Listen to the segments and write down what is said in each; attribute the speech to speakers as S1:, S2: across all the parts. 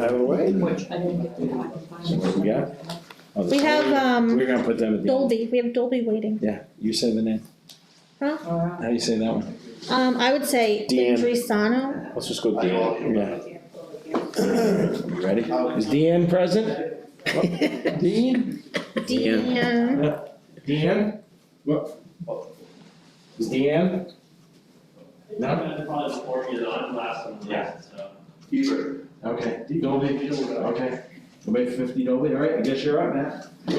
S1: Out of the way.
S2: Which I didn't get to find.
S1: So what we got? Oh, the-
S3: We have, um,
S1: We're gonna put them at the end.
S3: Dolby, we have Dolby waiting.
S1: Yeah, you say the name.
S2: All right.
S1: How do you say that one?
S3: Um, I would say
S1: Deanne.
S3: Indrisano.
S1: Let's just go Deanne. Yeah. You ready? Is Deanne present? Deanne?
S3: Deanne.
S1: Deanne? What? Is Deanne? No? Yeah.
S4: Hebert.
S1: Okay. Dolby. Okay. Go make fifty Dolby, all right, I guess you're up, Matt. You,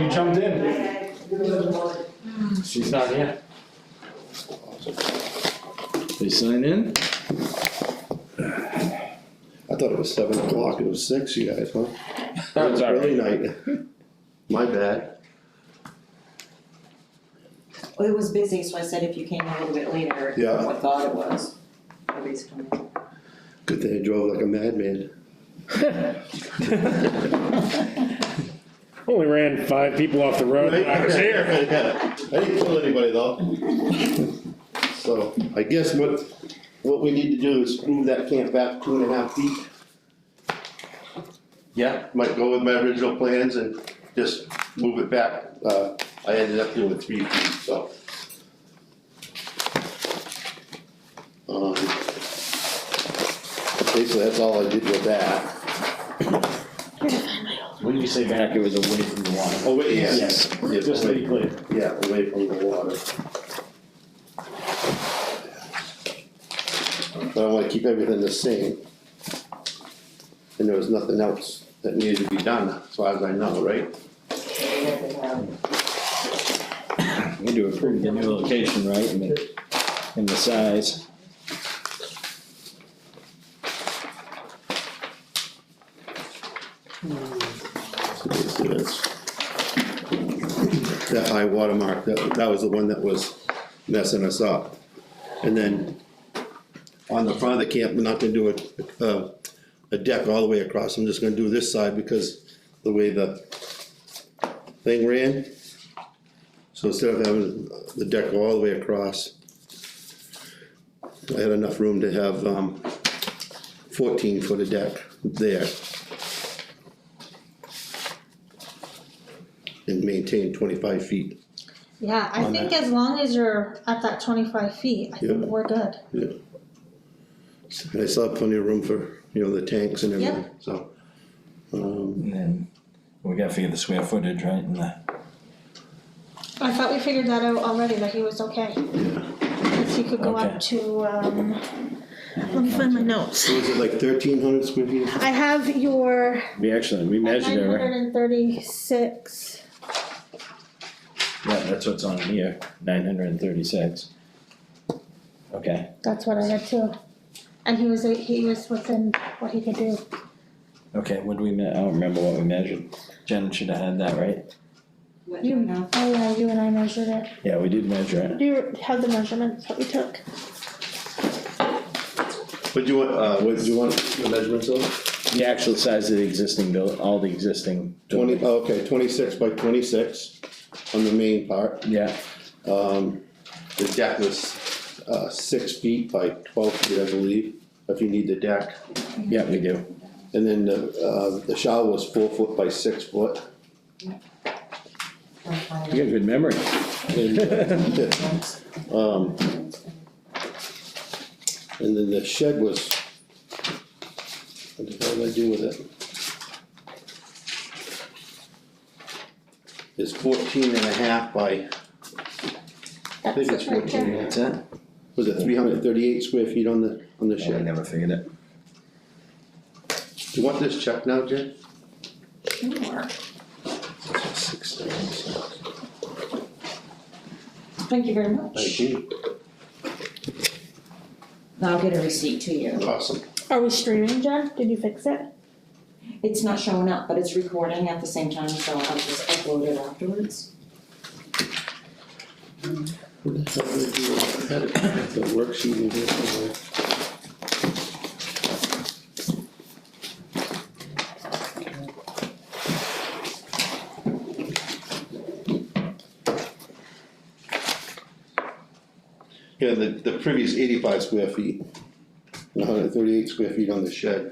S1: you jumped in. She's not here. They sign in?
S5: I thought it was seven o'clock, it was six, you guys, huh?
S1: That's all right.
S5: Early night. My bad.
S2: Well, it was busy, so I said if you came a little bit later,
S5: Yeah.
S2: I thought it was. Nobody's coming.
S5: Good thing I drove like a madman.
S6: Only ran five people off the road. when I was here.
S5: Yeah, I didn't kill anybody though. So I guess what, what we need to do is move that camp back two and a half feet.
S1: Yeah.
S5: Might go with my original plans and just move it back. Uh, I ended up doing three feet, so. Um, Basically, that's all I did with that.
S1: When you say back, it was away from the water.
S5: Oh, wait, yes. Yes,
S1: Just to
S5: away-
S1: be clear.
S5: Yeah, away from the water. But I wanna keep everything the same. And there was nothing else that needed to be done, as far as I know, right?
S1: We do approve the new location, right, and the, and the size.
S5: That high water mark, that, that was the one that was messing us up. And then on the front of the camp, we're not gonna do a, uh, a deck all the way across, I'm just gonna do this side because the way the thing ran. So instead of having the deck go all the way across, I had enough room to have, um, fourteen foot of deck there. And maintain twenty-five feet.
S3: Yeah, I
S5: On
S3: think as long as you're at that twenty-five feet, I think
S5: Yeah.
S3: we're good.
S5: Yeah. And I still have plenty of room for, you know, the tanks and everything, so. Um,
S7: And then we gotta figure the square footage, right, and the,
S3: I thought we figured that out already, that he was okay. If he could go
S7: Okay.
S3: up to, um, let me find my notes.
S5: so is it like thirteen hundred square feet?
S3: I have your
S1: We actually, we
S3: nine
S1: measured it, right?
S3: hundred and thirty-six.
S1: Yeah, that's what's on here, nine hundred and thirty-six. Okay,
S3: That's what I had too. And he was, he was within what he could do.
S1: okay, what do we, me- I don't remember what we measured. Jen should have had that, right?
S3: You know. Oh yeah, you and I measured it.
S1: Yeah, we did measure it.
S3: Do you have the measurements that we took?
S5: What do you want, uh, what do you want the measurements of?
S1: The actual size of the existing buil- all the existing.
S5: Twenty, oh,
S1: buildings.
S5: okay, twenty-six by twenty-six on the main part.
S1: Yeah,
S5: The deck was, uh, six feet by twelve feet, I believe, if you need the deck.
S1: yeah, we do.
S5: And then the, uh, the shower was four foot by six foot.
S1: You got a good memory.
S5: And, uh, Um, and then the shed was, what the hell did I do with it? It's fourteen and a half by, I think it's
S3: That's it right
S5: fourteen,
S3: there.
S5: and a half.
S1: it?
S5: was it three hundred and thirty-eight square feet on the, on the
S1: Yeah, we
S5: shed?
S1: never figured it.
S5: Do you want this checked now, Jay?
S2: Sure.
S5: Six thirty.
S2: Thank you very much.
S5: Thank you,
S2: I'll get a receipt to you.
S5: awesome,
S3: Are we streaming, Jen? Did you fix it?
S2: It's not showing up, but it's recording at the same time, so I'll just upload it afterwards.
S5: How did I do it? I had it- the worksheet in here somewhere. Yeah, the, the previous eighty-five square feet. hundred and thirty-eight square feet on the shed.